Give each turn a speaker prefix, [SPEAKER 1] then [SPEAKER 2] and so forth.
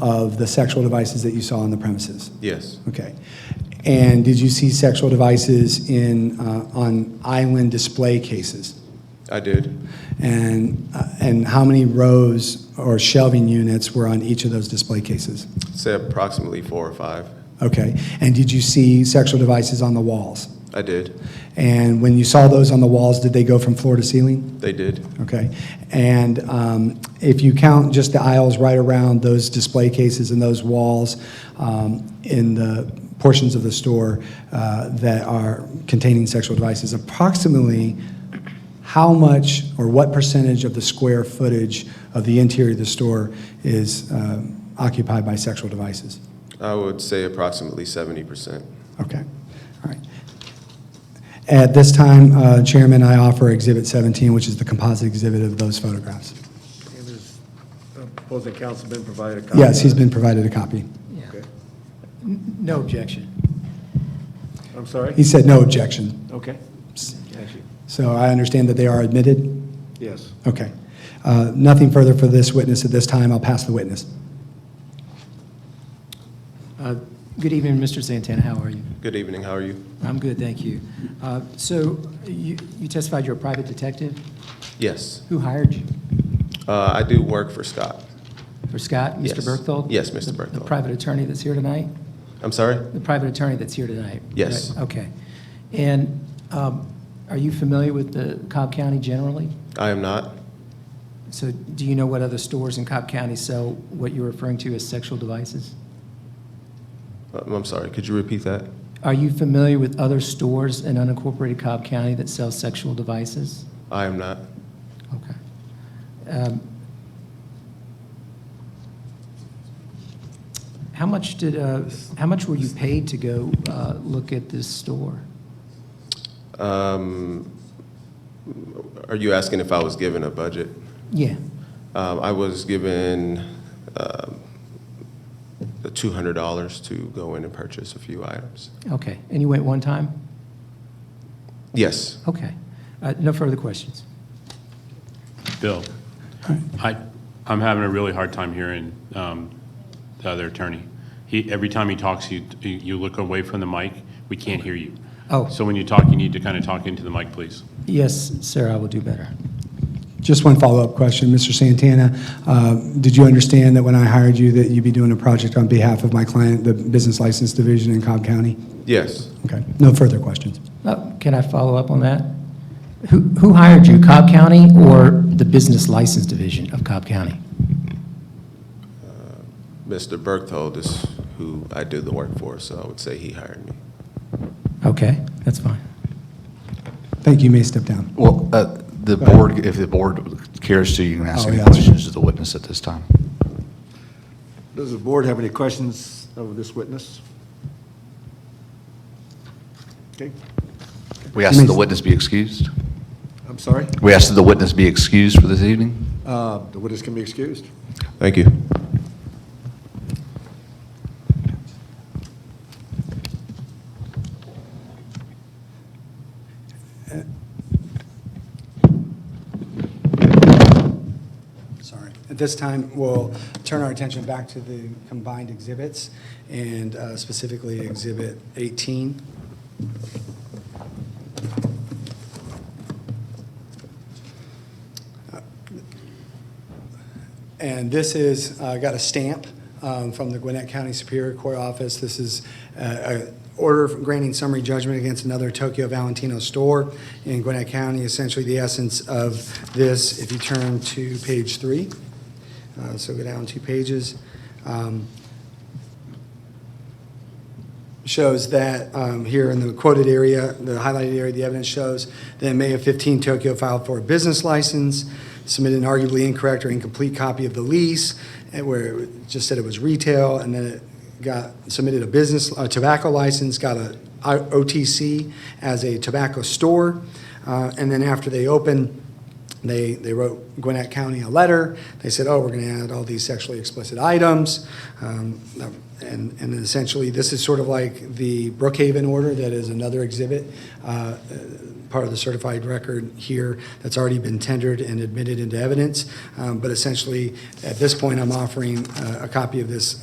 [SPEAKER 1] of the sexual devices that you saw on the premises?
[SPEAKER 2] Yes,
[SPEAKER 1] Okay. And did you see sexual devices in, uh, on island display cases?
[SPEAKER 2] I did.
[SPEAKER 1] And, uh, and how many rows or shelving units were on each of those display cases?
[SPEAKER 2] Say approximately four or five.
[SPEAKER 1] Okay. And did you see sexual devices on the walls?
[SPEAKER 2] I did.
[SPEAKER 1] And when you saw those on the walls, did they go from floor to ceiling?
[SPEAKER 2] They did.
[SPEAKER 1] Okay. And um, if you count just the aisles right around those display cases and those walls um, in the portions of the store uh, that are containing sexual devices, approximately how much or what percentage of the square footage of the interior of the store is um, occupied by sexual devices?
[SPEAKER 2] I would say approximately 70%.
[SPEAKER 1] Okay, all right. At this time, uh, Chairman, I offer Exhibit 17, which is the composite exhibit of those photographs.
[SPEAKER 3] And is uh, opposing councilman provided a copy?
[SPEAKER 1] Yes, he's been provided a copy.
[SPEAKER 3] Okay.
[SPEAKER 4] No objection.
[SPEAKER 3] I'm sorry?
[SPEAKER 1] He said no objection.
[SPEAKER 3] Okay. Thank you.
[SPEAKER 1] So I understand that they are admitted?
[SPEAKER 3] Yes.
[SPEAKER 1] Okay. Uh, Nothing further for this witness at this time. I'll pass the witness.
[SPEAKER 4] Uh, Good evening, Mr. Santana, how are you?
[SPEAKER 2] Good evening, how are you?
[SPEAKER 4] I'm good, thank you. Uh, So you you testified you're a private detective?
[SPEAKER 2] Yes,
[SPEAKER 4] Who hired you?
[SPEAKER 2] Uh, I do work for Scott.
[SPEAKER 4] For Scott,
[SPEAKER 2] Yes.
[SPEAKER 4] Mr. Berthold?
[SPEAKER 2] Yes, Mr.
[SPEAKER 4] The- The
[SPEAKER 2] Berthold.
[SPEAKER 4] private attorney that's here tonight?
[SPEAKER 2] I'm sorry?
[SPEAKER 4] The private attorney that's here tonight?
[SPEAKER 2] Yes.
[SPEAKER 4] Right, Okay. And um, are you familiar with the Cobb County generally?
[SPEAKER 2] I am not.
[SPEAKER 4] So do you know what other stores in Cobb County sell what you're referring to as sexual devices?
[SPEAKER 2] Um, I'm sorry, could you repeat that?
[SPEAKER 4] Are you familiar with other stores in unincorporated Cobb County that sell sexual devices?
[SPEAKER 2] I am not.
[SPEAKER 4] Okay. Um, How much did, uh, how much were you paid to go uh, look at this store?
[SPEAKER 2] Um, Are you asking if I was given a budget?
[SPEAKER 4] Yeah,
[SPEAKER 2] Um, I was given um, the $200 to go in and purchase a few items.
[SPEAKER 4] okay. And you went one time?
[SPEAKER 2] Yes,
[SPEAKER 4] Okay. Uh, No further questions?
[SPEAKER 5] Bill, I, I'm having a really hard time hearing um, the other attorney. He, every time he talks, you, you look away from the mic, we can't hear you.
[SPEAKER 4] Oh.
[SPEAKER 5] So when you talk, you need to kind of talk into the mic, please.
[SPEAKER 4] Yes, sir, I will do better.
[SPEAKER 1] Just one follow-up question, Mr. Santana. uh, Did you understand that when I hired you that you'd be doing a project on behalf of my client, the Business License Division in Cobb County?
[SPEAKER 2] yes.
[SPEAKER 1] Okay, no further questions.
[SPEAKER 4] Uh, Can I follow up on that? Who who hired you, Cobb County or the Business License Division of Cobb County?
[SPEAKER 2] Mr. Berthold is who I do the work for, so I would say he hired me.
[SPEAKER 4] Okay, that's fine.
[SPEAKER 1] Thank you, you may step down.
[SPEAKER 6] Well, uh, the
[SPEAKER 1] Go ahead.
[SPEAKER 6] board, if the board cares to, you can ask
[SPEAKER 1] Oh,
[SPEAKER 6] any
[SPEAKER 1] yeah, that's right.
[SPEAKER 6] questions to the witness at this time.
[SPEAKER 3] Does the board have any questions of this witness? Okay,
[SPEAKER 6] We ask that the witness be excused.
[SPEAKER 3] I'm sorry.
[SPEAKER 6] We ask that the witness be excused for this evening.
[SPEAKER 3] Uh, The witness can be excused.
[SPEAKER 2] Thank you.
[SPEAKER 1] Sorry. At this time, we'll turn our attention back to the combined exhibits, and uh, specifically Exhibit 18. And this is, uh, got a stamp um, from the Gwinnett County Superior Court Office. This is uh, a order granting summary judgment against another Tokyo Valentino store in Gwinnett County. Essentially, the essence of this, if you turn to page three, uh, so go down two pages. um, shows that um, here in the quoted area, the highlighted area, the evidence shows that in May of 15, Tokyo filed for a business license, submitted an arguably incorrect or incomplete copy of the lease, and where it just said it was retail, and then it got, submitted a business, a tobacco license, got a I- OTC as a tobacco store, uh, and then after they opened, They, they wrote Gwinnett County a letter. They said, oh, we're going to add all these sexually explicit items. Um, And, and essentially, this is sort of like the Brookhaven order that is another exhibit, uh, part of the certified record here that's already been tendered and admitted into evidence. Um, But essentially, at this point, I'm offering uh, a copy of this